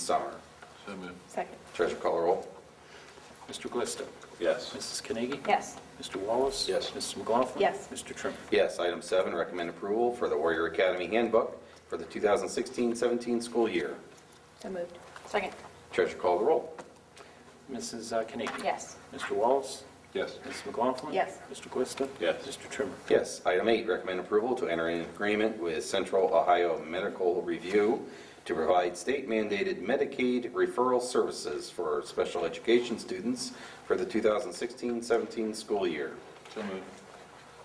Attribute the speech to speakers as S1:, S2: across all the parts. S1: Sauer.
S2: So moved.
S3: Second.
S4: Treasurer call the roll.
S5: Mr. Glista.
S1: Yes.
S5: Mrs. Carnegie?
S3: Yes.
S5: Mr. Wallace?
S4: Yes.
S5: Mrs. McLaughlin?
S3: Yes.
S5: Mr. Trimmer?
S4: Yes, item seven, recommend approval for the Warrior Academy Handbook for the 2016-17 school year.
S3: So moved. Second.
S4: Treasurer call the roll.
S5: Mrs. uh, Carnegie?
S3: Yes.
S5: Mr. Wallace?
S1: Yes.
S5: Mrs. McLaughlin?
S3: Yes.
S5: Mr. Glista.
S1: Yes.
S5: Mr. Trimmer?
S4: Yes, item eight, recommend approval to enter an agreement with Central Ohio Medical Review to provide state mandated Medicaid referral services for special education students for the 2016-17 school year.
S2: So moved.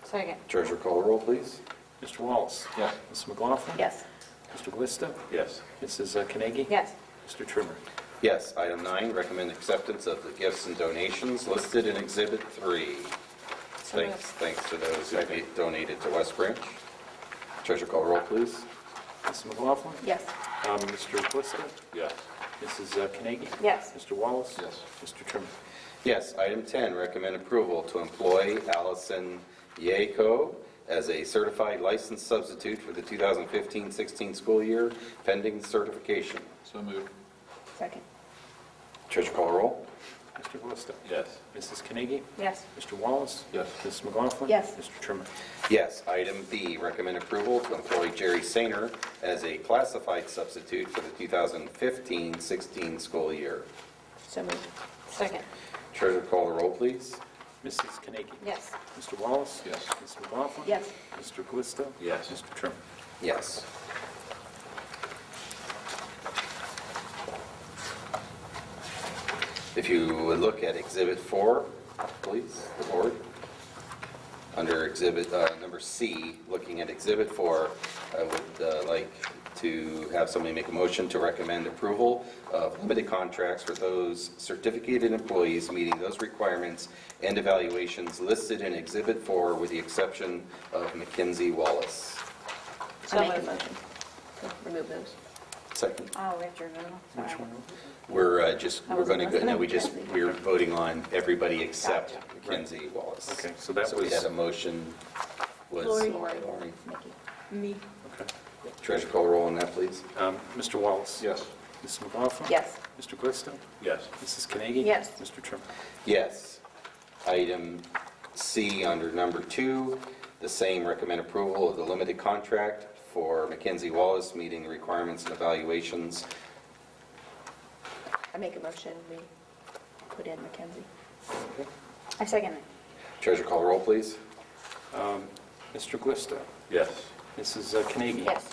S3: Second.
S4: Treasurer call the roll, please.
S5: Mr. Wallace?
S2: Yes.
S5: Mrs. McLaughlin?
S3: Yes.
S5: Mr. Glista.
S1: Yes.
S5: Mrs. uh, Carnegie?
S3: Yes.
S5: Mr. Trimmer?
S4: Yes, item nine, recommend acceptance of the gifts and donations listed in Exhibit 3.
S3: So moved.
S4: Thanks, thanks to those that we donated to West Branch. Treasurer call the roll, please.
S5: Mrs. McLaughlin?
S3: Yes.
S5: Um, Mr. Glista.
S1: Yes.
S5: Mrs. uh, Carnegie?
S3: Yes.
S5: Mr. Wallace?
S2: Yes.
S5: Mr. Trimmer?
S4: Yes, item 10, recommend approval to employ Allison Yako as a certified licensed substitute for the 2015-16 school year pending certification.
S2: So moved.
S3: Second.
S4: Treasurer call the roll.
S5: Mr. Glista.
S1: Yes.
S5: Mrs. Carnegie?
S3: Yes.
S5: Mr. Wallace?
S2: Yes.
S5: Mrs. McLaughlin?
S3: Yes.
S5: Mr. Trimmer?
S4: Yes, item B, recommend approval to employ Jerry Sainer as a classified substitute for the 2015-16 school year.
S3: So moved. Second.
S4: Treasurer call the roll, please.
S5: Mrs. Carnegie?
S3: Yes.
S5: Mr. Wallace?
S2: Yes.
S5: Mrs. McLaughlin?
S3: Yes.
S5: Mr. Glista?
S1: Yes.
S5: Mr. Trimmer?
S4: Yes. If you would look at Exhibit 4, please, the board. Under Exhibit uh, number C, looking at Exhibit 4, I would uh, like to have somebody make a motion to recommend approval of limited contracts for those certificated employees meeting those requirements and evaluations listed in Exhibit 4 with the exception of Mackenzie Wallace.
S3: I make a motion. Remove those.
S4: Second.
S3: Oh, we have to remove them. Sorry.
S4: We're uh, just,
S3: I
S4: we're going to
S3: wasn't
S4: go, no, we just,
S3: listening.
S4: we're voting on everybody except
S3: Gotcha.
S4: Mackenzie Wallace.
S5: Okay, so that
S4: we
S5: was-
S4: had a motion, was.
S3: Lori.
S4: Lori.
S3: Nikki.
S6: Me.
S5: Okay.
S4: Treasurer call roll on that, please.
S5: Um, Mr. Wallace?
S2: Yes.
S5: Mrs. McLaughlin?
S3: Yes.
S5: Mr. Glista?
S1: Yes.
S5: Mrs. Carnegie?
S3: Yes.
S5: Mr. Trimmer?
S4: Yes. Item C under number two, the same recommend approval of the limited contract for Mackenzie Wallace meeting the requirements and evaluations.
S3: I make a motion, we put in Mackenzie. I second it.
S4: Treasurer call roll, please.
S5: Um, Mr. Glista?
S1: Yes.
S5: Mrs. uh, Carnegie?
S3: Yes.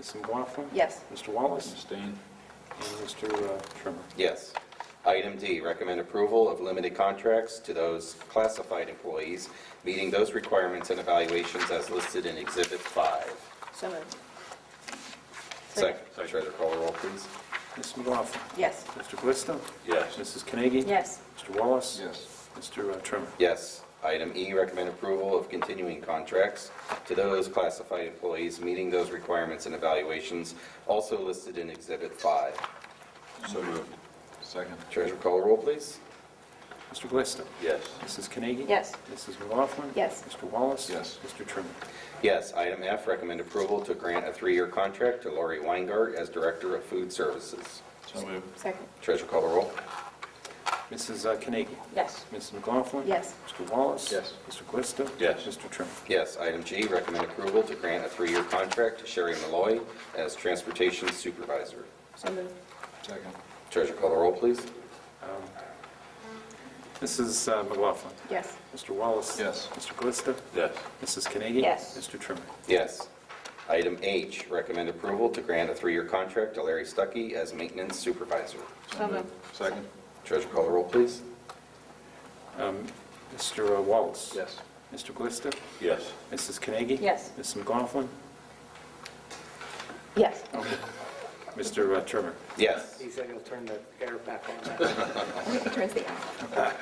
S5: Mrs. McLaughlin?
S3: Yes.
S5: Mr. Wallace?
S2: Abstain.
S5: And Mr. uh, Trimmer?
S4: Yes. Item D, recommend approval of limited contracts to those classified employees meeting those requirements and evaluations as listed in Exhibit 5.
S3: So moved.
S4: Second, Treasurer call the roll, please.
S5: Mrs. McLaughlin?
S3: Yes.
S5: Mr. Glista?
S1: Yes.
S5: Mrs. Carnegie?
S3: Yes.
S5: Mr. Wallace?
S2: Yes.
S5: Mr. uh, Trimmer?
S4: Yes. Item E, recommend approval of continuing contracts to those classified employees meeting those requirements and evaluations also listed in Exhibit 5.
S2: So moved. Second.
S4: Treasurer call the roll, please.
S5: Mr. Glista?
S1: Yes.
S5: Mrs. Carnegie?
S3: Yes.
S5: Mrs. McLaughlin?
S3: Yes.
S5: Mr. Wallace?
S2: Yes.
S5: Mr. Trimmer?
S4: Yes. Item F, recommend approval to grant a three-year contract to Lori Weingart as Director of Food Services.
S2: So moved.
S3: Second.
S4: Treasurer call the roll.
S5: Mrs. uh, Carnegie?
S3: Yes.
S5: Mrs. McLaughlin?
S3: Yes.
S5: Mr. Wallace?
S2: Yes.
S5: Mr. Glista?
S1: Yes.
S5: Mr. Trimmer?
S4: Yes, item G, recommend approval to grant a three-year contract to Sherry Malloy as Transportation Supervisor.
S3: So moved.
S2: Second.
S4: Treasurer call the roll, please.
S5: Mrs. uh, McLaughlin?
S3: Yes.
S5: Mr. Wallace?
S2: Yes.
S5: Mr. Glista?
S1: Yes.
S5: Mrs. Carnegie?
S3: Yes.
S5: Mr. Trimmer?
S4: Yes. Item H, recommend approval to grant a three-year contract to Larry Stuckey as Maintenance Supervisor.
S3: So moved.
S2: Second.
S4: Treasurer call the roll, please.
S5: Mr. uh, Wallace?
S2: Yes.
S5: Mr. Glista?
S1: Yes.
S5: Mrs. Carnegie?
S3: Yes.
S5: Mrs. McLaughlin?
S3: Yes.
S5: Mr. uh, Trimmer?
S4: Yes.
S7: He said he'll turn the air back on.
S3: Turns the eye.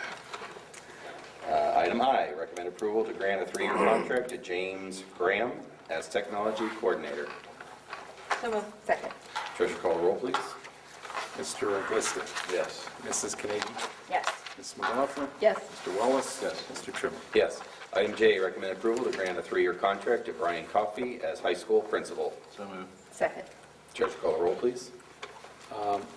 S4: Uh, Item I, recommend approval to grant a three-year contract to James Graham as Technology Coordinator.
S3: So moved. Second.
S4: Treasurer call the roll, please.
S5: Mr. uh, Glista?
S1: Yes.
S5: Mrs. Carnegie?
S3: Yes.
S5: Mrs. McLaughlin?
S3: Yes.
S5: Mr. Wallace?
S2: Yes.
S5: Mr. Trimmer?
S4: Yes. Item J, recommend approval to grant a three-year contract to Brian Coffey as high school principal.
S2: So moved.
S3: Second.
S4: Treasurer call the roll, please.